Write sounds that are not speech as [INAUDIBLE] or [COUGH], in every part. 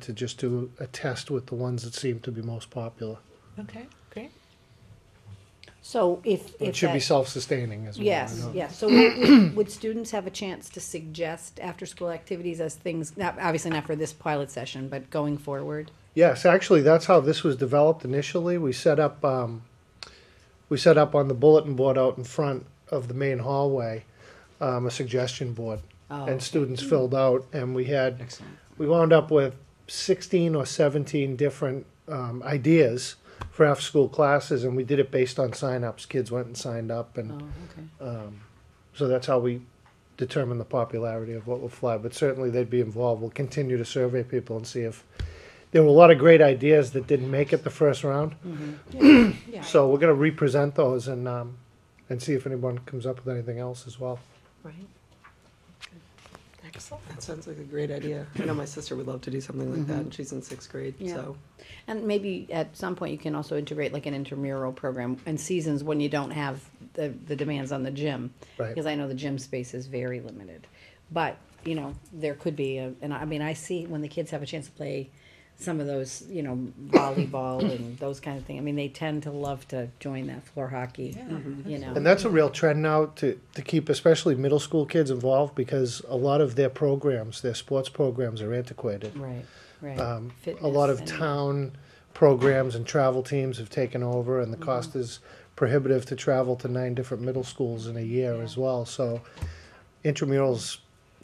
to just do a test with the ones that seem to be most popular. Okay, great. So if, if It should be that- self-sustaining as well. I Yes, know. yes, so would- would would students have a chance to suggest after-school activities as things, not, obviously not for this pilot session, but going forward? Yes, actually, that's how this was developed initially. We set up, um, we set up on the bulletin board out in front of the main hallway, um, a suggestion board. Oh, And students filled out and we had, excellent. we wound up with sixteen or seventeen different, um, ideas for after-school classes and we did it based on sign-ups. Kids went and signed up Oh, and, okay. um, so that's how we determine the popularity of what will fly, but certainly they'd be involved. We'll continue to survey people and see if, there were a lot of great ideas that didn't make it the first round. Yeah. So we're gonna represent those and, um, and see if anyone comes up with anything else as well. Right. Excellent. That sounds like a great idea. I know my sister would love to do something like that, and she's in sixth grade, Mm-hmm. Yeah. so. And maybe at some point you can also integrate like an intramural program and seasons when you don't have the, the demands on the gym. Right. Because I know the gym space is very limited. But, you know, there could be, a- and I mean, I see when the kids have a chance to play some of those, you know, volleyball and those kind of things. I mean, they tend to love to join that floor hockey, you And know. that's a real trend now to, to keep especially middle school kids involved because a lot of their programs, their sports programs are antiquated. Right, right. Um, a Fitness lot of and- town programs and travel teams have taken over and the Mm-hmm. cost is prohibitive to travel to nine different middle schools in a year as well, so intramurals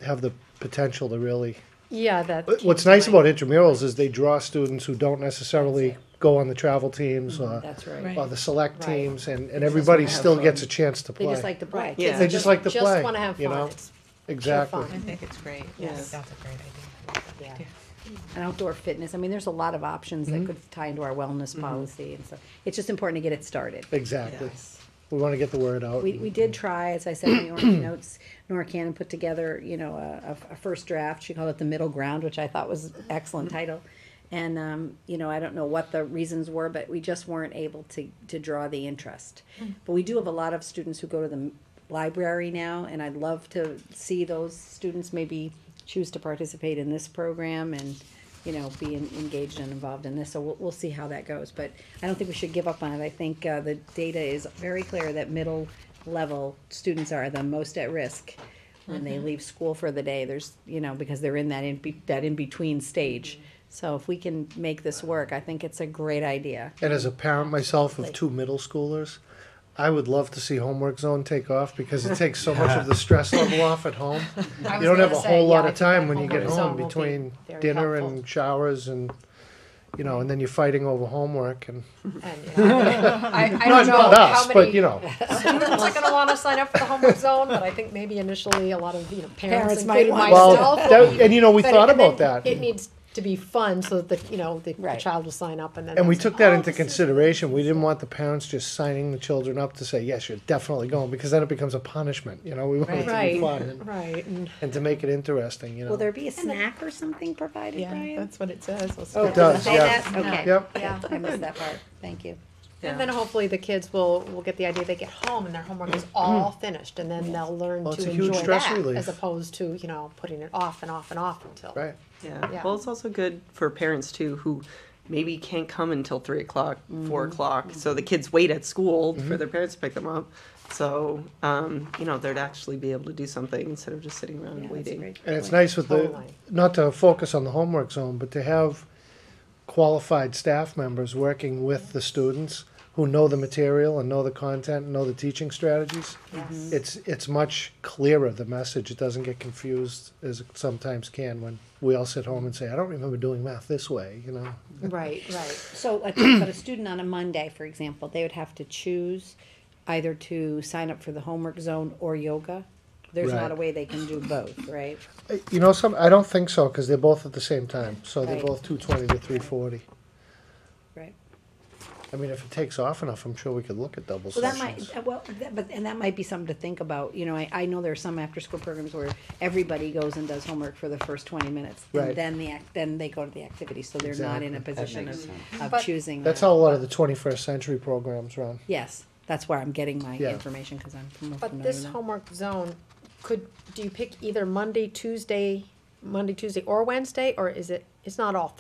have the potential to really Yeah, that. What- What's nice about intramurals is they draw students who don't necessarily go on the travel teams or, Mm-hmm. That's Right. right. or the select Right. teams, and, and just everybody wanna have still fun. gets a chance to They just play. like to play. Yeah. Kids They just like to play, Just wanna have you know? fun. It's Exactly. fun. I think it's great. Yes. Yes, that's a great idea. Yeah. And outdoor fitness, I mean, there's a lot of options Mm-hmm. that could tie into our wellness policy and stuff. It's just important to get it started. Exactly. We wanna get the word out. We, we did try, as I said in the orange notes, Nora Cannon put together, you know, a, a- a first draft, she called it the middle ground, which I thought was excellent title. And, um, you know, I don't know what the reasons were, but we just weren't able to, to draw the interest. But we do have a lot of students who go to the m- library now, and I'd love to see those students maybe choose to participate in this program and, you know, be en- engaged and involved in this, so we'll, we'll see how that goes, but I don't think we should give up on it, I think, uh, the data is very clear that middle level students are the most at risk when they leave school for the day, there's, you know, because they're in that in, be- that in-between stage, so if we can make this work, I think it's a great idea. And as a parent myself of two middle schoolers, I would love to see homework zone take off because it takes so much of the stress level off at [LAUGHS] home. You don't have a whole lot of time when you get home between dinner and showers and, you know, and then you're fighting over homework and, I, I not don't know not how us, but you many know. students are gonna wanna sign up for the homework zone, but I think maybe initially a lot of, you know, Parents parents, might including want Well, myself. that- and you know, we but it- thought and about then that. It needs to be fun so that, the you know, the the Right. child will sign up and then. And we that's- took that into consideration. We didn't want the parents just signing the children up to say, yes, you're definitely going, because then it becomes a punishment, you know, we want it to be Right. fun and- Right, and, and to make it interesting, you Will know. there be a snack or something provided, yeah, Brian? that's what it says. We'll Oh, start does, with say yeah. that? Okay. Yep. Yeah, I missed that [LAUGHS] part, thank you. And then hopefully the kids will, will get the idea they get home and their homework is all finished and then they'll learn Mm-hmm. Well, it's to a huge enjoy stress that relief. as opposed to, you know, putting it off and off and off until. Right. Yeah, Yeah. well, it's also good for parents too, who maybe can't come until three o'clock, four Mm-hmm. o'clock, so the kids wait at school for their parents to pick them up. So, um, you know, they'd actually be able to do something instead of just sitting around Yeah, that's waiting. great. And it's nice with the, Totally. not to focus on the homework zone, but to have qualified staff members working with the students who know the material and know the content and know the teaching strategies. Yes. It's, it's much clearer, the message. It doesn't get confused as it sometimes can when we all sit home and say, I don't remember doing math this way, you know? Right, right. [LAUGHS] So, like, but a student on a Monday, for example, they would have to choose either to sign up for the homework zone or yoga. There's not a Right. way they can do both, right? Uh, You know, some, I don't think so, because they're both at the same time, so they're Right. both two twenty to three forty. Right. I mean, if it takes off enough, I'm sure we could look at double Well, that sessions. might, uh, well, that- but, and that might be something to think about, you know, I, I know there are some after-school programs where everybody goes and does homework for the first twenty minutes. Right. And then the, act then they go to the activity, so they're not in a position of, of But- choosing. That's that. how a lot of the twenty-first century programs run. Yes, that's where I'm getting my Yeah. information, cause I'm more familiar But this now. homework zone, could, do you pick either Monday, Tuesday, Monday, Tuesday or Wednesday? Or is it, it's not all